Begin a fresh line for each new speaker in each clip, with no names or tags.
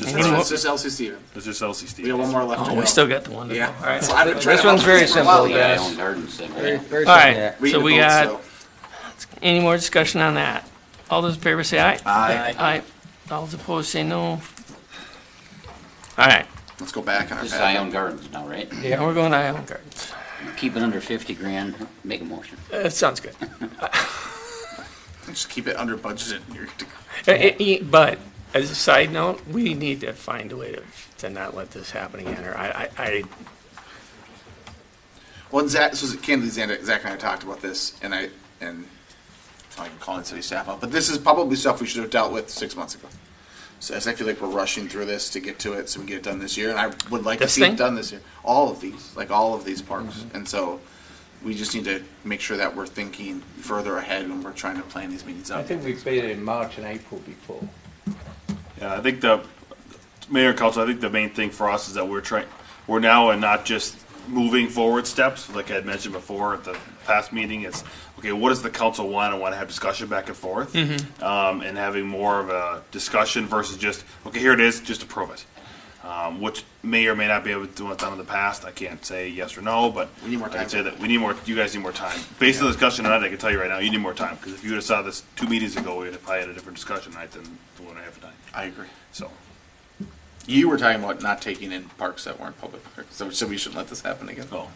Is
Any more?
this-
This is LC Steven.
is this LC
We have one
Stevens?
more left. to
Oh,
go.
we still got the one. to go.
Yeah.
All right.
So I didn't try
This
to-
one's very
Well,
simple,
yeah.
guys.
Own garden center.
Very, very simple.
All right.
We
So
need
we
to vote,
got
so-
any more discussion on that? All those in favor say aye.
Aye.
Aye. All those opposed say no. All right.
Let's go back on our
This is
path.
Ion Gardens now, right?
Now we're going to Island Gardens.
Keep it under fifty grand, make a motion.
That sounds good.
Just keep it under budget. and you're-
Uh, it- it- But as a side note, we need to find a way to, to not let this happen again, or I, I, I,
Well, and Zach, this was candidly Zach, Zach and I talked about this, and I and so I can call in city staff out. But this is probably stuff we should have dealt with six months ago. So as I feel like we're rushing through this to get to it, so we get it done this year, and I would like
This
to see
thing? Mm-hmm.
it done this year. All of these, like all of these parks, and so we just need to make sure that we're thinking further ahead when we're trying to plan these meetings out.
I think we played it in March and April before.
Yeah, I think the, Mayor and Council, I think the main thing for us is that we're trying, we're now and not just moving forward steps, like I had mentioned before at the past meeting, it's, okay, what does the council want? I want to have discussion back and forth. Um, and having more of a discussion versus just, okay, here it is, just approve it. Um, which may or may not be able to do what's done in the past. I can't say yes or no, but
We need more time.
I'd say that we need more. You guys need more time. Based on the discussion tonight, I can tell you right now, you need more time because if you would have saw this two meetings ago, we'd have probably had a different discussion tonight than the one I have tonight.
I agree.
So
You were talking about not taking in parks that weren't public parks, so, so we shouldn't let this happen again.
Oh.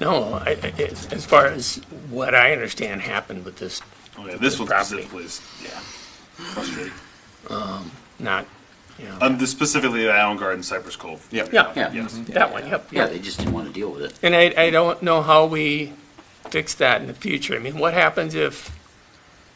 no, I, I- as, as far as what I understand happened with this,
Oh, yeah, this one
Property.
specifically is, yeah, frustrating.
not, you know,
Um, this specifically the Allen Garden Cypress Cove.
Yep.
yeah, Mm-hmm.
Yeah,
Yes.
that one, yep,
yeah,
yep.
they just didn't wanna deal with it.
And I, I don't know how we fix that in the future. I mean, what happens if,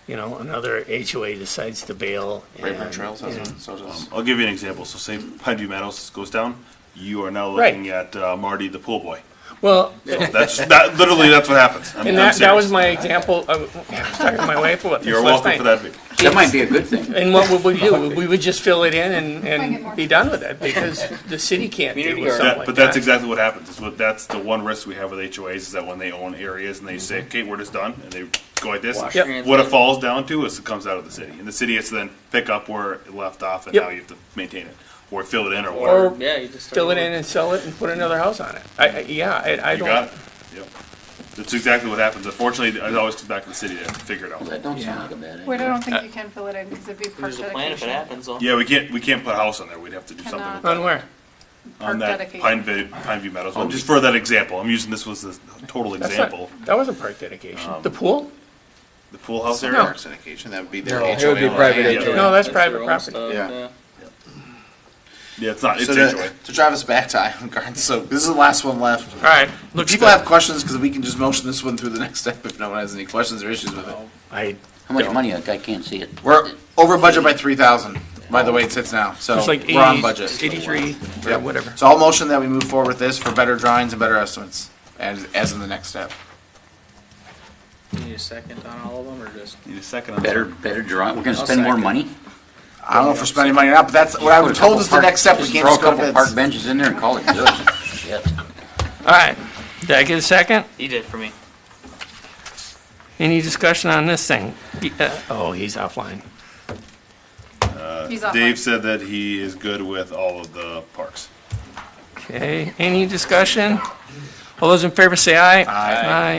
you know, another HOA decides to bail?
Rayburn
and,
Trails has
you know,
one, so does.
Um, I'll give you an example. So say Pineview Meadows goes down, you are now
Right.
looking at uh, Marty the pool boy.
Well,
That's just, that literally that's what happens. I'm,
and
I'm
that, that was
serious.
my example, I was talking to my wife about this
You're
last
welcome
night.
for that. video.
That might be a good thing.
And what would we do? We would just fill it in and,
Bring it more.
and be done with it because the city can't deal
Community
with
garden.
something
That-
like
but that's
that.
exactly what happens. It's what, that's the one risk we have with HOAs is that when they own areas and they say, okay, we're just done, and they go like this.
Wash
Yep.
hands.
What it falls down to is it comes out of the city, and the city has to then pick up where it left off, and
Yep.
now you have to maintain it or fill it in or
Or
whatever.
Yeah, you just.
fill it in and sell it and put another house on it. I, I, yeah, I, I
You got it.
don't,
Yep. That's exactly what happens. Unfortunately, it always comes back to the city to figure it out.
That don't sound like a bad
We
idea.
don't think you can fill it in because it'd be park
Uh, There's a plan if it
dedication.
happens, though.
Yeah, we can't we can't put a house on there. We'd have to do something with
Cannot.
that.
on where?
on
Park
that
dedication.
Pine View, Pine View Meadows
Oh.
one. Just for that example, I'm using this was a total
That's not-
example. Um,
That wasn't park dedication. The pool?
The pool house
their
area.
No.
parks dedication. That would be their
No,
HOA.
it would be private
land.
HOA.
No, that's
their
private
own
property.
stuff,
Yeah.
Yeah, it's not. It's
So
HOA.
to, to drive us back to Island Garden, so this is the last one left.
All right,
If
looks
People
good.
have questions because we can just motion this one through the next step if no one has any questions or issues with it.
I,
How much money? Like, I can't see it.
We're over budget by three thousand, by the way it sits now, so
it's like
we're on
eighty,
budget.
eighty-three or
Yep.
whatever.
So I'll motion that we move forward with this for better drawings and better estimates as, as in the next step.
You Need a second on all of them, or just?
Need a second on
Better,
that.
better drawing, we're gonna
I'll
spend more
second.
money?
I don't know if we're spending money or not, but that's what I
Put
was
a
told
couple
is the
park-
next step. We can't just
Throw
go
a couple
to
park
bids.
benches in there and call it good. Shit.
All right, did I get a second?
You did for me.
Any discussion on this thing? He- uh, Oh, he's offline.
He's off
Dave
line.
said that he is good with all of the parks.
Okay, any discussion? All those in favor say aye.
Aye.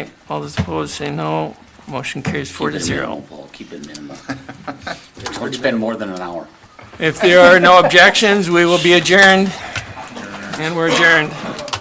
Aye. All those opposed say no. Motion carries four
Keep
to
it minimal,
zero.
Paul, keep it minimal. Don't spend more than an hour.
If there are no objections, we will be adjourned. And we're adjourned.